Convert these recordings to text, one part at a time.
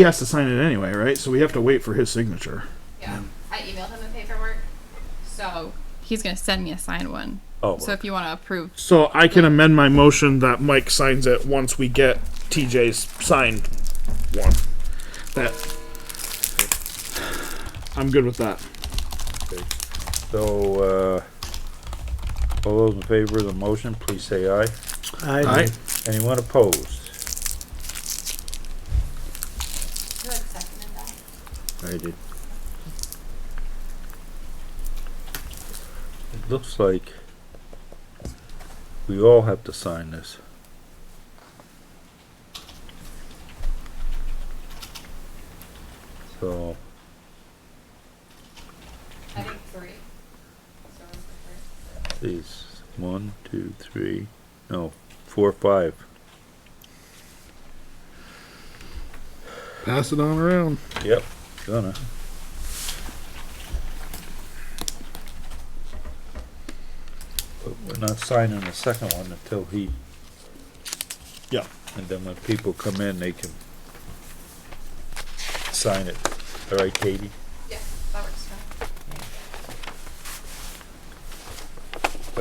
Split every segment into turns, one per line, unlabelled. he has to sign it anyway, right? So we have to wait for his signature.
Yeah. I emailed him the paperwork. So he's going to send me a signed one.
Oh,
So if you want to approve,
So I can amend my motion that Mike signs it once we get TJ's signed one. That I'm good with that.
so, uh, all those in favor of the motion, please say aye.
All right.
Anyone opposed?
who had seconded that?
I did. It looks like we all have to sign this. So,
I think three. So it was the first.
these, one, two, three, no, four, five.
Pass it on around.
Yep. Gonna. But we're not signing the second one until he,
Yeah.
and then when people come in, they can sign it. All right, Katie?
Yeah, that works fine.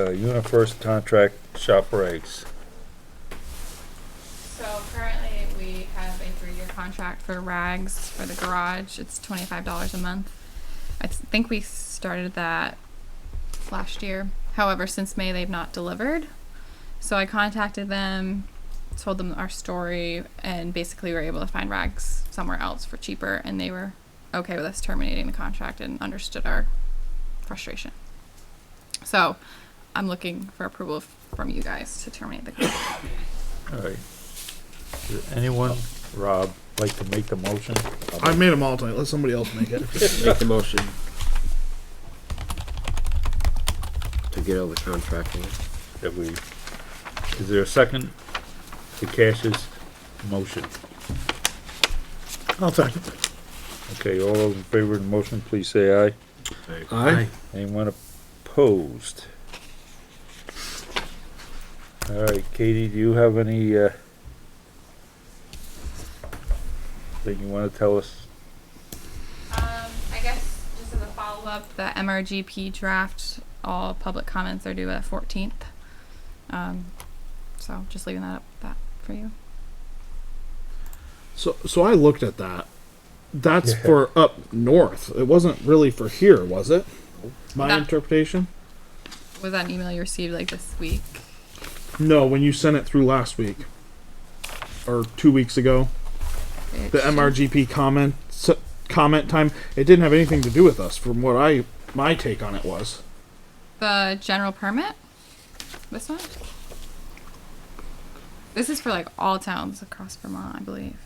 Uh, UniFirst contract shop rags.
So currently we have a three-year contract for rags for the garage. It's twenty-five dollars a month. I th- think we started that last year. However, since May they've not delivered. So I contacted them, told them our story, and basically were able to find rags somewhere else for cheaper, and they were okay with us terminating the contract and understood our frustration. So I'm looking for approval f- from you guys to terminate the contract.
All right. Does anyone, Rob, like to make the motion?
I made them all tonight. Let somebody else make it.
Make the motion. To get all the contracting.
That we, is there a second to Cash's motion?
I'll second.
Okay, all those in favor of the motion, please say aye.
Aye.
Anyone opposed? All right, Katie, do you have any, uh, thing you wanna tell us?
Um, I guess just as a follow-up, the MRGP draft, all public comments are due at fourteenth. Um, so just leaving that up, that for you.
So so I looked at that. That's for up north. It wasn't really for here, was it? My
That-
interpretation?
Was that an email you received like this week?
No, when you sent it through last week or 2 weeks ago. the MRGP comment s- comment time. It didn't have anything to do with us, from what I my take on it was.
The general permit? This one? This is for like all towns across Vermont, I believe.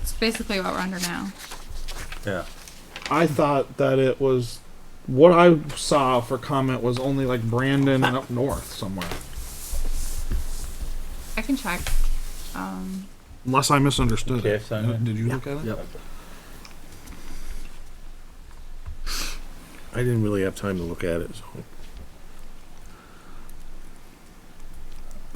It's basically what we're under now.
Yeah,
I thought that it was what I saw for comment was only like Brandon and up north somewhere.
I can check. Um,
Unless I misunderstood
Okay,
it.
so-
Did you look at it?
Yep.
I didn't really have time to look at it, so.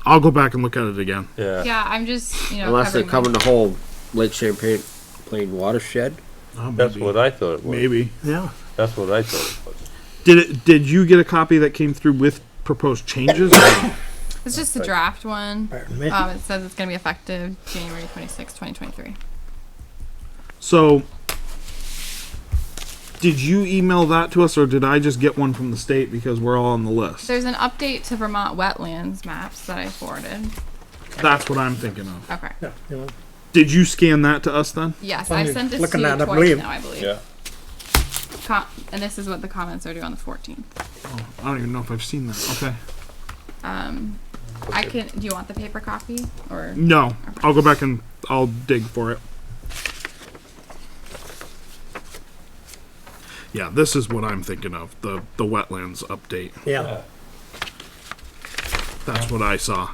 I'll go back and look at it again.
yeah,
yeah, I'm just, you know,
Unless they're
covering my-
covering the whole Lake Champlain Plain watershed.
Oh,
that's
maybe.
what I thought it was.
maybe.
Yeah.
That's what I thought it was.
Did it? Did you get a copy that came through with proposed changes?
It's just the
Right.
draft one.
Pardon me.
Um, it says it's going to be effective January twenty sixth, 2023.
so. Did you email that to us, or did I just get one from the state because we're all on the list?
There's an update to Vermont wetlands maps that I forwarded.
That's what I'm thinking of.
Okay.
Yeah, you know,
Did you scan that to us then?
Yes,
Well,
I
you're
sent this to
looking
you
at it, I
twice
believe.
now, I believe.
Yeah,
Com- and this is what the comments are due on the 14th.
I don't even know if I've seen that. Okay.
Um, I can. Do you want the paper copy or?
No, I'll go back and I'll dig for it. Yeah, this is what I'm thinking of the the wetlands update.
Yeah,
That's what I saw.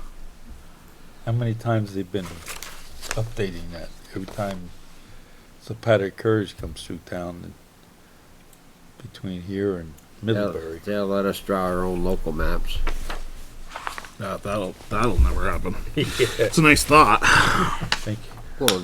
how many times they've been updating that? Every time Zapata Courage comes through town, and between here and
They'll,
Middlebury.
they'll let us draw our own local maps.
Yeah, that'll that'll never happen. It's a nice thought.
I think